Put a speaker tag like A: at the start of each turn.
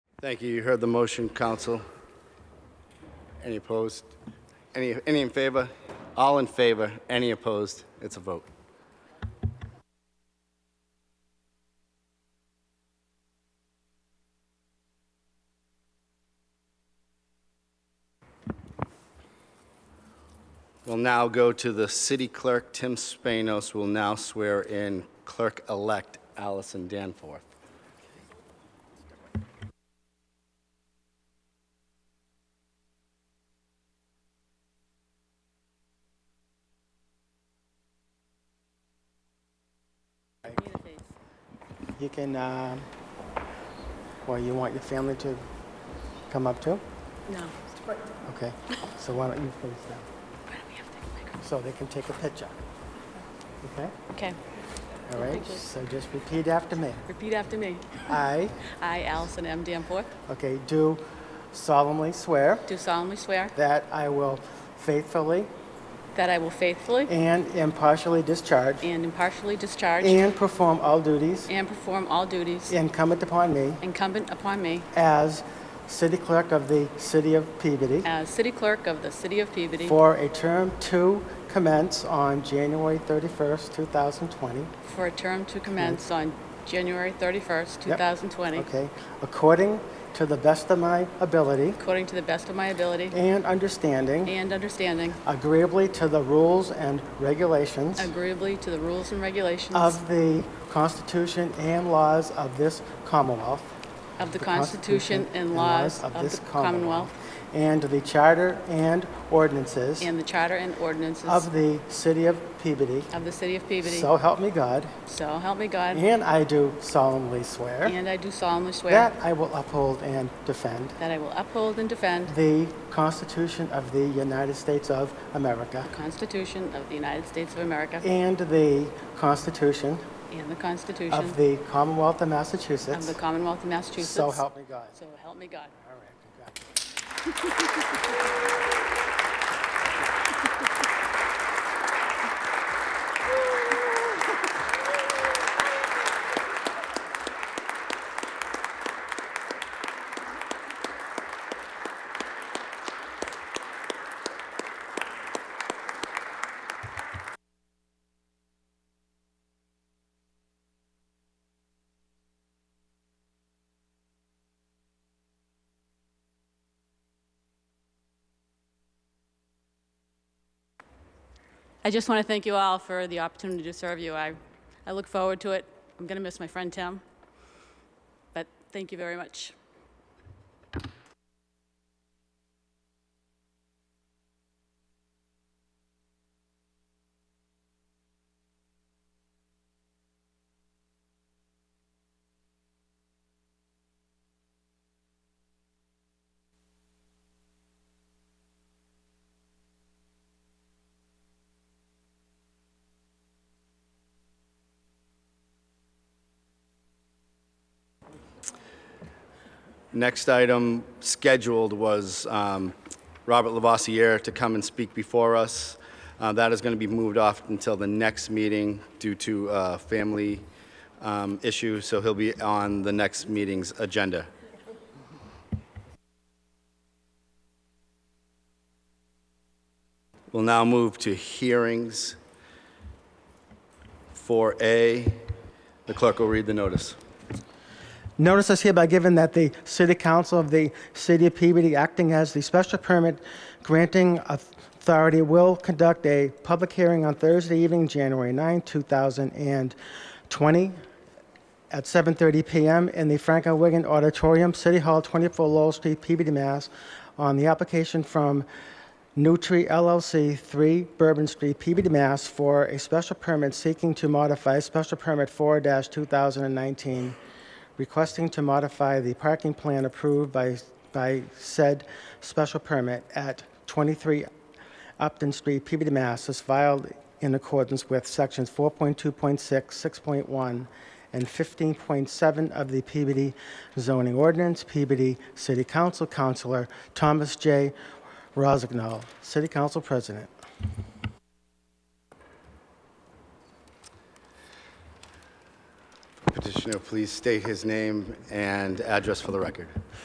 A: Thank you. You heard the motion, council. Any opposed? Any, any in favor? All in favor? Any opposed? It's a vote. We'll now go to the city clerk, Tim Spanos, will now swear in clerk-elect Allison Danforth.
B: You can, um, well, you want your family to come up too?
C: No.
B: Okay, so why don't you face them? So they can take a picture. Okay,
C: Okay,
B: all right,
C: pictures.
B: so just repeat after me.
C: repeat after me.
B: I,
C: I, Allison M. Danforth,
B: okay, do solemnly swear
C: do solemnly swear
B: that I will faithfully
C: that I will faithfully
B: and impartially discharge
C: and impartially discharge
B: and perform all duties
C: and perform all duties
B: incumbent upon me
C: incumbent upon me
B: as city clerk of the city of Peabody
C: as city clerk of the city of Peabody
B: for a term to commence on January 31st, 2020.
C: for a term to commence on January 31st,
B: Yep.
C: 2020,
B: Okay, according to the best of my ability
C: according to the best of my ability
B: and understanding,
C: and understanding,
B: agreeably to the rules and regulations
C: agreeably to the rules and regulations
B: of the Constitution and laws of this Commonwealth.
C: of the Constitution and laws of
B: this
C: the Commonwealth
B: And the Charter and ordinances
C: and the charter and ordinances
B: of the City of Peabody.
C: of the city of Peabody.
B: So help me God.
C: So help me God.
B: And I do solemnly swear
C: And I do solemnly swear
B: that I will uphold and defend
C: that I will uphold and defend
B: the Constitution of the United States of America
C: the Constitution of the United States of America
B: and the Constitution
C: and the Constitution
B: of the Commonwealth of
C: of the
B: Massachusetts.
C: Commonwealth of Massachusetts.
B: So help me God.
C: So help me God.
B: All right, congratulations.
C: I just want to thank you all for the opportunity to serve you. I, I look forward to it. I'm going to miss my friend Tim, but thank you very much.
A: Next item scheduled was um, Robert Lavoisier to come and speak before us. Uh, That is going to be moved off until the next meeting due to uh, family um, issue, so he'll be on the next meeting's agenda. We'll now move to hearings. 4A, the clerk will read the notice.
B: Notice is hereby given that the City Council of the City of Peabody, acting as the special permit granting authority, will conduct a public hearing on Thursday evening, January 9, 2020, at 7:30 PM in the Franklin Wigan Auditorium, City Hall, 24 Lowell Street, Peabody, Mass., on the application from Nutri LLC, 3 Bourbon Street, Peabody, Mass., for a special permit seeking to modify Special Permit 4-2019, requesting to modify the parking plan approved by, by said special permit at 23 Upton Street, Peabody, Mass. is filed in accordance with Sections 4.2.6, 6.1, and 15.7 of the Peabody zoning ordinance. Peabody City Council, Councilor Thomas J. Rozignol, City Council President.
A: Petitioner, please state his name and address for the record.